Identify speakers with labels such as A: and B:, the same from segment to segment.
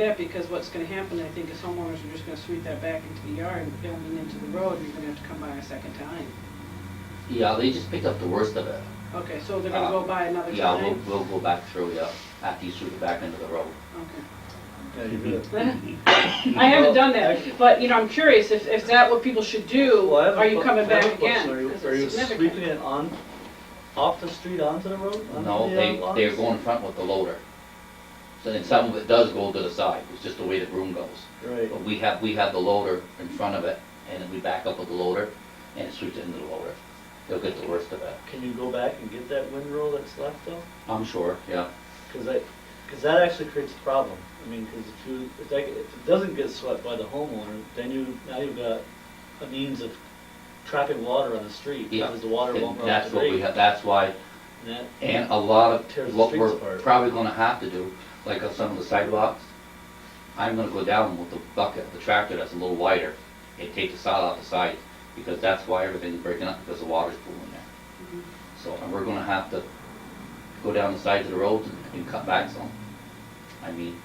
A: that because what's gonna happen, I think, is homeowners are just gonna sweep that back into the yard and building into the road, and you're gonna have to come by a second time.
B: Yeah, they just picked up the worst of it.
A: Okay, so they're gonna go by another
B: Uh, Yeah, we'll,
A: time?
B: we'll go back through, yeah, after you sweep it back into the road.
A: Okay.
C: Yeah, you do.
A: I haven't done that, but, you know, I'm curious, if, if that what people should do,
C: Well, I have a
A: are you
C: que-
A: coming
C: I have
A: back
C: a question.
A: again?
C: Are you,
A: 'Cause
C: are
A: it's
C: you
A: significant.
C: sweeping it on, off the street onto the road? onto
B: No,
C: the,
B: they,
C: uh, lots?
B: they're going front with the loader. So then some of it does go to the side, it's just the way the broom goes.
C: Right,
B: But we have, we have the loader in front of it, and then we back up with the loader, and it sweeps it into the loader. They'll get the worst of it,
C: can you go back and get that windrow that's left though?
B: I'm sure, yeah.
C: Cause I, cause that actually creates a problem. I mean, cause if you, if that, if it doesn't get swept by the homeowner, then you, now you've got a means of trapping water on the street.
B: Yeah,
C: Because the water
B: And
C: won't run off
B: That's
C: the
B: what we
C: lake.
B: have, that's why,
C: And that-
B: and a lot
C: Tears
B: of,
C: the
B: what
C: streets
B: we're
C: apart.
B: probably gonna have to do, like on some of the sidewalks, I'm gonna go down with the bucket, the tractor that's a little wider, and take the sod off the side, because that's why everything's breaking up, because the water's pooling there.
A: Mhm.
B: So, and we're gonna have to go down the sides of the roads and- and cut back some. I mean,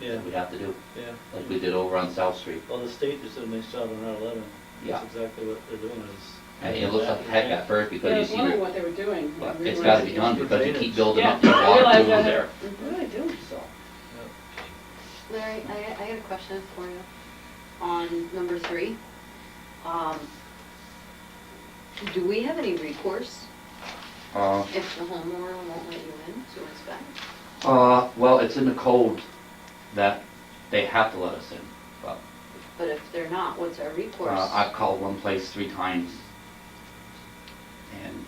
C: Yeah,
B: we have to do,
C: yeah.
B: like we did over on South Street.
C: Well, the state just did a nice job on Route eleven.
B: Yeah.
C: That's exactly what they're doing is.
B: And it looks like heck at first,
A: Yeah, I was
B: because you see,
A: wondering
B: where-
A: what they were doing.
B: but
A: We
B: it's
A: were-
B: gotta be done, because you keep building up the
A: Yeah, I
B: water
A: realize
B: pools
A: that.
B: there,
A: We really do.
B: so.
D: Larry, I, I got a question for you on number three. Um, do we have any recourse
B: Uh,
D: if the homeowner won't let you in to inspect?
B: Uh, well, it's in the code that they have to let us in, but,
D: But if they're not, what's our recourse?
B: uh, I've called one place three times. And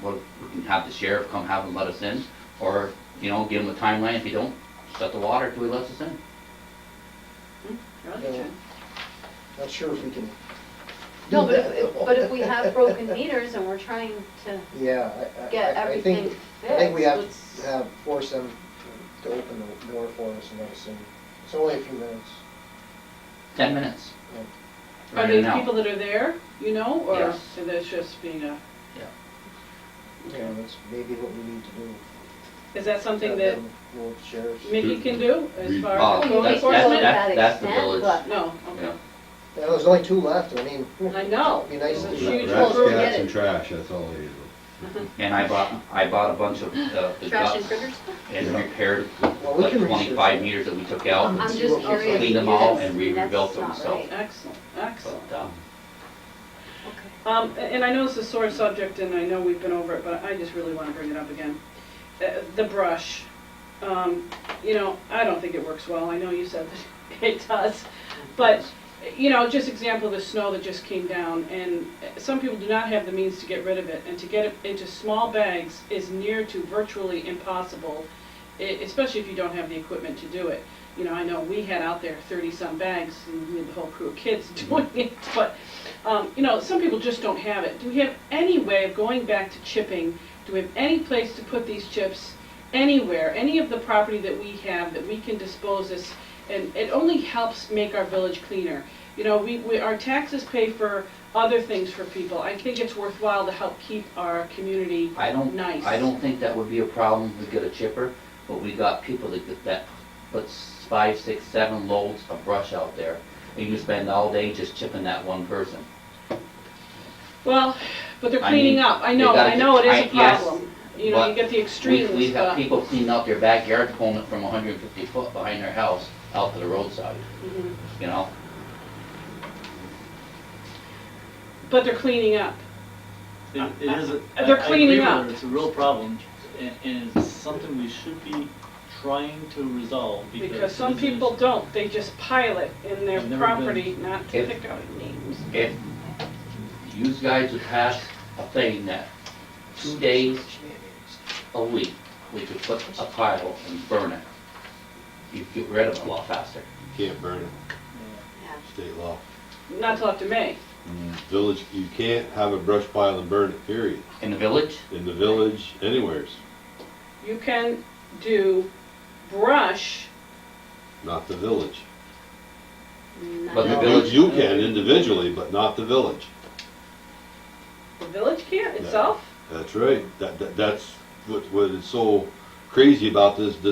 B: what, we can have the sheriff come have them let us in, or, you know, give them a timeline, if you don't, shut the water till he lets us in.
A: Really, Jen?
E: Not sure if we can.
D: No,
E: do
D: but
E: that,
D: if,
E: though.
D: but if we have broken meters and we're trying to
E: Yeah, I, I.
D: get
E: I- I
D: everything
E: think- I think we have
D: fixed,
E: to
D: let
E: have, force them to open the door for us and let us in. It's only a few minutes.
B: Ten minutes.
E: Yeah.
A: Are
B: Right
A: they the
B: now.
A: people that are there, you know, or
B: Yes.
A: are they just being a,
E: You know, that's maybe what we need to do.
A: is that something
E: Have
A: that
E: them Go with the sheriffs.
A: Mickey can do as far
B: Uh,
A: as
D: we
A: code
B: that's- that's-
D: enforcement?
A: enforcement?
B: that- That's the
D: That extent,
B: village,
D: but-
A: No, okay.
B: yeah.
E: Yeah, there's only two left, I mean.
A: I know.
E: It'd be nice
A: It's a
E: to-
A: huge
F: Rats,
A: improvement.
F: cats, and trash, that's all they do.
B: And I bought, I bought a bunch of, uh, the
D: Trash and
B: guts
D: critters?
B: and repaired
E: Well, we
B: like
E: can research
B: twenty-five
E: that.
B: meters that we took out.
D: I'm
E: see
D: just
E: what we can
D: curious.
B: clean them
D: because
B: all and we
D: that's
B: rebuilt them,
D: not
B: so-
D: right.
A: Excellent, excellent.
B: But, uh,
D: Okay.
A: Um, and I know it's a sore subject, and I know we've been over it, but I just really want to bring it up again. Uh, The brush, um, you know, I don't think it works well, I know you said that it does, but, you know, just example of the snow that just came down, and uh, some people do not have the means to get rid of it, and to get it into small bags is near to virtually impossible, e- especially if you don't have the equipment to do it. You know, I know we had out there thirty-some bags, and we had the whole crew of kids doing
B: Mm-hmm.
A: it, but um, you know, some people just don't have it. Do we have any way of going back to chipping? Do we have any place to put these chips anywhere, any of the property that we have that we can dispose this? And it only helps make our village cleaner. You know, we, we, our taxes pay for other things for people. I think it's worthwhile to help keep our community
B: I don't,
A: Nice.
B: I don't think that would be a problem to get a chipper, but we got people that, get- that puts five, six, seven loads of brush out there. And you spend all day just chipping that one person.
A: Well, but they're
B: I
A: cleaning
B: mean,
A: up. I
B: they
A: know,
B: gotta
A: I know it is a
B: get- I- yes,
A: problem. You know, you
B: but
A: get the
B: We,
A: extremes,
B: we have
A: but-
B: people cleaning out their backyard, pulling it from hundred and fifty foot behind their house out to the roadside,
A: Mhm.
B: you know?
A: but they're cleaning up.
C: It it is, a- I I
A: They're cleaning
C: agree with
A: up.
C: her, it's a real problem, and, and it's something we should be trying to resolve because.
A: Because some
C: it is an
A: people
C: issue.
A: don't, they just pile it in their
C: I've never been-
A: property, not to
B: If-
A: pick out names.
B: If you guys would pass a thing that two days a week, we could put a pile and burn it, you'd get rid of it a lot faster.
F: Can't burn it,
D: Yeah.
F: state law.
A: Not till after May.
F: Village, you can't have a brush pile and burn it, period,
B: In the village,
F: in the village, anywheres,
A: You can do brush,
F: not the village.
D: Not
B: But the
F: You-
D: all.
B: village-
F: You can individually, but not the village.
A: the village can't
F: Yeah.
A: itself.
F: That's right, that, that, that's what, what is so crazy about this, this